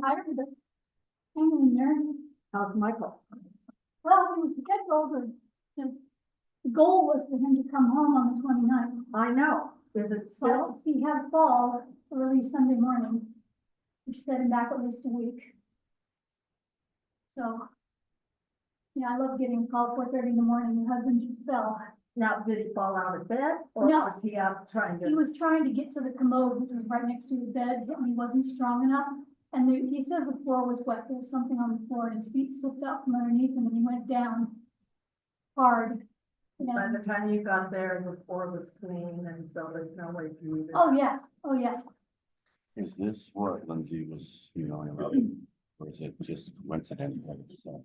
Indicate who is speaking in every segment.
Speaker 1: tired of this hanging in there. How's Michael? Well, he was scheduled and the, the goal was for him to come home on the 29th.
Speaker 2: I know, is it still?
Speaker 1: Well, he had a fall early Sunday morning, which set him back at least a week. So. Yeah, I love getting called four thirty in the morning. Your husband just fell.
Speaker 2: Now, did he fall out of bed or
Speaker 1: No.
Speaker 2: was he up trying
Speaker 1: He
Speaker 2: to?
Speaker 1: was trying to get to the commode, which was right next to his bed, and he wasn't strong enough. And there- he says the floor was wet, there was something on the floor, and his feet slipped out from underneath him, and he went down hard.
Speaker 2: By
Speaker 1: And,
Speaker 2: the time you got there, the floor was clean and so there's no way to move it.
Speaker 1: oh, yeah, oh, yeah.
Speaker 3: Is this what Lindsay was emailing about? Or is it just coincidental? So,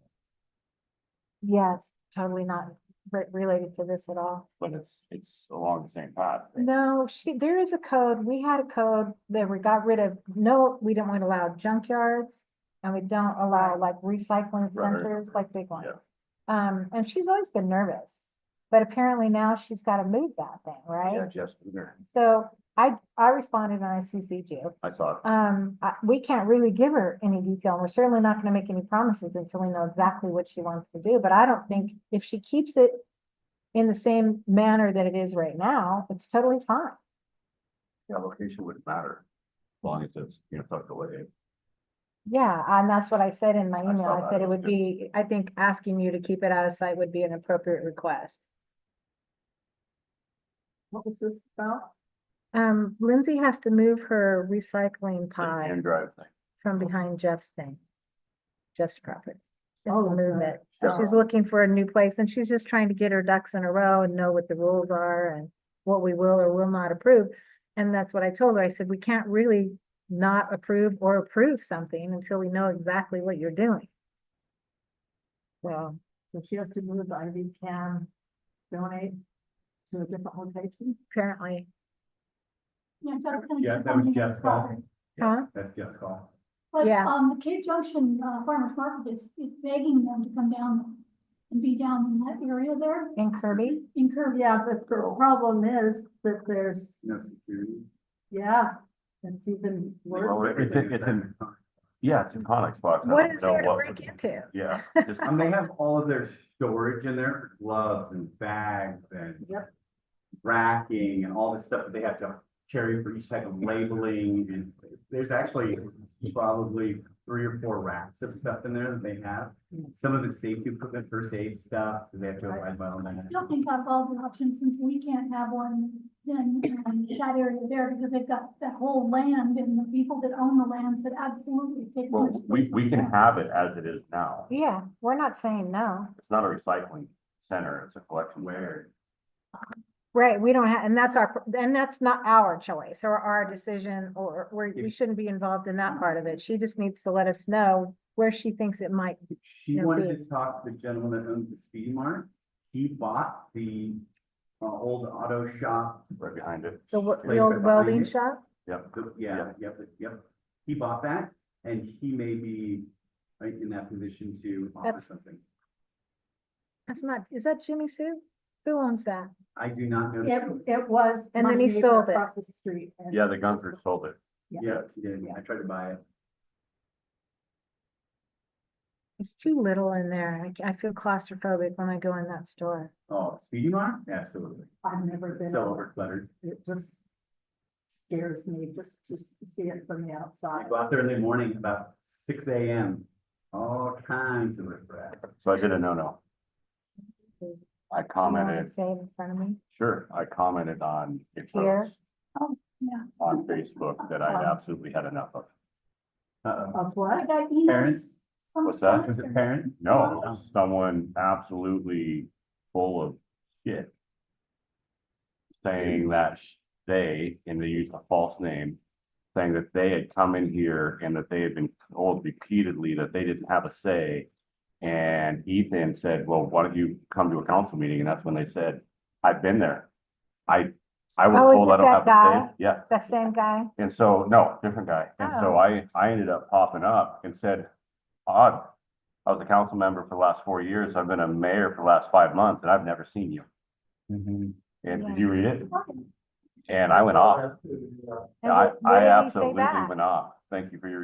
Speaker 4: Yes, totally not re- related to this at all.
Speaker 3: But it's, it's along the same path. right?
Speaker 4: No, she, there is a code. We had a code that we got rid of. No, we don't want to allow junkyards. And we don't allow like recycling centers, like big ones. Um, and she's always been nervous, but apparently now she's got to move that thing,
Speaker 3: Yeah,
Speaker 4: right?
Speaker 3: Jeff's been there.
Speaker 4: So I, I responded and I CC'd you.
Speaker 3: I thought,
Speaker 4: Um, I- we can't really give her any detail. and We're certainly not gonna make any promises until we know exactly what she wants to do, but I don't think if she keeps it in the same manner that it is right now, it's totally fine.
Speaker 3: yeah, location wouldn't matter. As long as it's, you know, tucked away.
Speaker 4: Yeah, and that's what I said in my
Speaker 3: I
Speaker 4: email.
Speaker 3: saw
Speaker 4: I said
Speaker 3: that.
Speaker 4: it would be, I think asking you to keep it out of sight would be an appropriate request.
Speaker 2: What was this about?
Speaker 4: Um, Lindsay has to move her recycling pile
Speaker 3: And drive thing.
Speaker 4: from behind Jeff's thing. Jeff's property. Just
Speaker 2: Oh,
Speaker 4: move
Speaker 2: okay.
Speaker 4: it. So she's
Speaker 2: Oh.
Speaker 4: looking for a new place and she's just trying to get her ducks in a row and know what the rules are and what we will or will not approve. And that's what I told her. I said, we can't really not approve or approve something until we know exactly what you're doing. So,
Speaker 2: So she has to move the IV can, donate to a different location?
Speaker 4: apparently,
Speaker 1: Yeah, so it's-
Speaker 5: Jeff, that was Jeff's call.
Speaker 4: huh?
Speaker 5: That's Jeff's call.
Speaker 1: But,
Speaker 4: Yeah.
Speaker 1: um, the Cape Junction, uh, farmer's market is, is begging them to come down and be down in that area there,
Speaker 4: In Kirby?
Speaker 1: in Kirby.
Speaker 2: Yeah, but the problem is that there's,
Speaker 5: No security.
Speaker 2: yeah, it's even
Speaker 3: Well,
Speaker 2: worse.
Speaker 3: it- it's in- it's in- Yeah, it's in Conex box. I
Speaker 4: What
Speaker 3: don't
Speaker 4: is
Speaker 3: know
Speaker 4: there to
Speaker 3: what
Speaker 4: break
Speaker 3: would-
Speaker 4: into?
Speaker 3: Yeah. just-
Speaker 5: And they have all of their storage in there, gloves and bags and
Speaker 2: Yep.
Speaker 5: racking and all this stuff that they have to carry for each type of labeling and there's actually probably three or four racks of stuff in there that they have.
Speaker 1: Hmm.
Speaker 5: Some of the safety equipment, first aid stuff, they have to abide by all
Speaker 1: I
Speaker 5: that.
Speaker 1: still think out of all the options, since we can't have one, then um, that area there, because they've got that whole land and the people that own the land said absolutely take.
Speaker 3: Well,
Speaker 1: much
Speaker 3: we,
Speaker 1: space
Speaker 3: we can
Speaker 1: back.
Speaker 3: have it as it is now.
Speaker 4: Yeah, we're not saying no.
Speaker 3: It's not a recycling center, it's a collection. Where?
Speaker 4: Right, we don't have, and that's our, and that's not our choice or our decision, or we're, we
Speaker 5: If-
Speaker 4: shouldn't be involved in that part of it. She just needs to let us know where she thinks it might.
Speaker 5: She
Speaker 4: Yeah,
Speaker 5: wanted
Speaker 4: we-
Speaker 5: to talk to the gentleman that owned the Speedy Mart. He bought the uh, old auto shop.
Speaker 3: Right behind it.
Speaker 4: The wo- the
Speaker 5: Place
Speaker 4: old
Speaker 5: behind
Speaker 4: welding
Speaker 5: it.
Speaker 4: shop?
Speaker 3: Yep.
Speaker 5: The- Yeah,
Speaker 3: Yeah.
Speaker 5: yep, yep. He bought that and he may be like, in that position to offer
Speaker 4: That's-
Speaker 5: something.
Speaker 4: That's not, is that Jimmy Sue? Who owns that?
Speaker 5: I do not know. the
Speaker 2: It,
Speaker 5: truth.
Speaker 2: it was.
Speaker 4: And
Speaker 2: my
Speaker 4: then he
Speaker 2: neighbor
Speaker 4: sold it.
Speaker 2: Across the street. and-
Speaker 3: Yeah, the Gunther sold it.
Speaker 5: Yeah, he did. I tried to buy it.
Speaker 4: It's too little in there. I c- I feel claustrophobic when I go in that store.
Speaker 5: Oh, Speedy Mart? Absolutely.
Speaker 2: I've never
Speaker 5: It's
Speaker 2: been.
Speaker 5: so
Speaker 2: over.
Speaker 5: overcluttered.
Speaker 2: It just scares me just to s- see it from the
Speaker 5: I
Speaker 2: outside.
Speaker 5: go out there in the morning about six AM. All kinds of riffraff.
Speaker 3: So I did a no-no. I
Speaker 4: You know what I'm
Speaker 3: commented,
Speaker 4: saying in front of me.
Speaker 3: sure, I commented on. it
Speaker 4: Here?
Speaker 3: first
Speaker 1: Yeah.
Speaker 3: On Facebook that I absolutely had enough of.
Speaker 5: Uh-oh.
Speaker 2: Of
Speaker 1: I
Speaker 2: what?
Speaker 1: got emails.
Speaker 5: Parents?
Speaker 1: from
Speaker 3: What's that?
Speaker 5: Was it
Speaker 1: solicitors.
Speaker 5: parents?
Speaker 3: No, it was someone absolutely full of shit. Saying that sh- they, and they used a false name, saying that they had come in here and that they had been told repeatedly that they didn't have a say. And Ethan said, well, why don't you come to a council meeting? And that's when they said, I've been there. I, I
Speaker 4: Oh,
Speaker 3: was
Speaker 4: is
Speaker 3: told I
Speaker 4: it
Speaker 3: don't have
Speaker 4: that
Speaker 3: a
Speaker 4: guy?
Speaker 3: say. Yeah.
Speaker 4: That same guy?
Speaker 3: And so, no, different guy. And so
Speaker 4: Oh.
Speaker 3: I, I ended up popping up and said, odd. I was a council member for the last four years. I've been a mayor for the last five months and I've never seen you.
Speaker 5: Mm-hmm.
Speaker 3: And did you read it? And I went off.
Speaker 4: And
Speaker 3: I,
Speaker 4: what- what
Speaker 3: I
Speaker 4: did he say
Speaker 3: absolutely
Speaker 4: back?
Speaker 3: went off. Thank you for your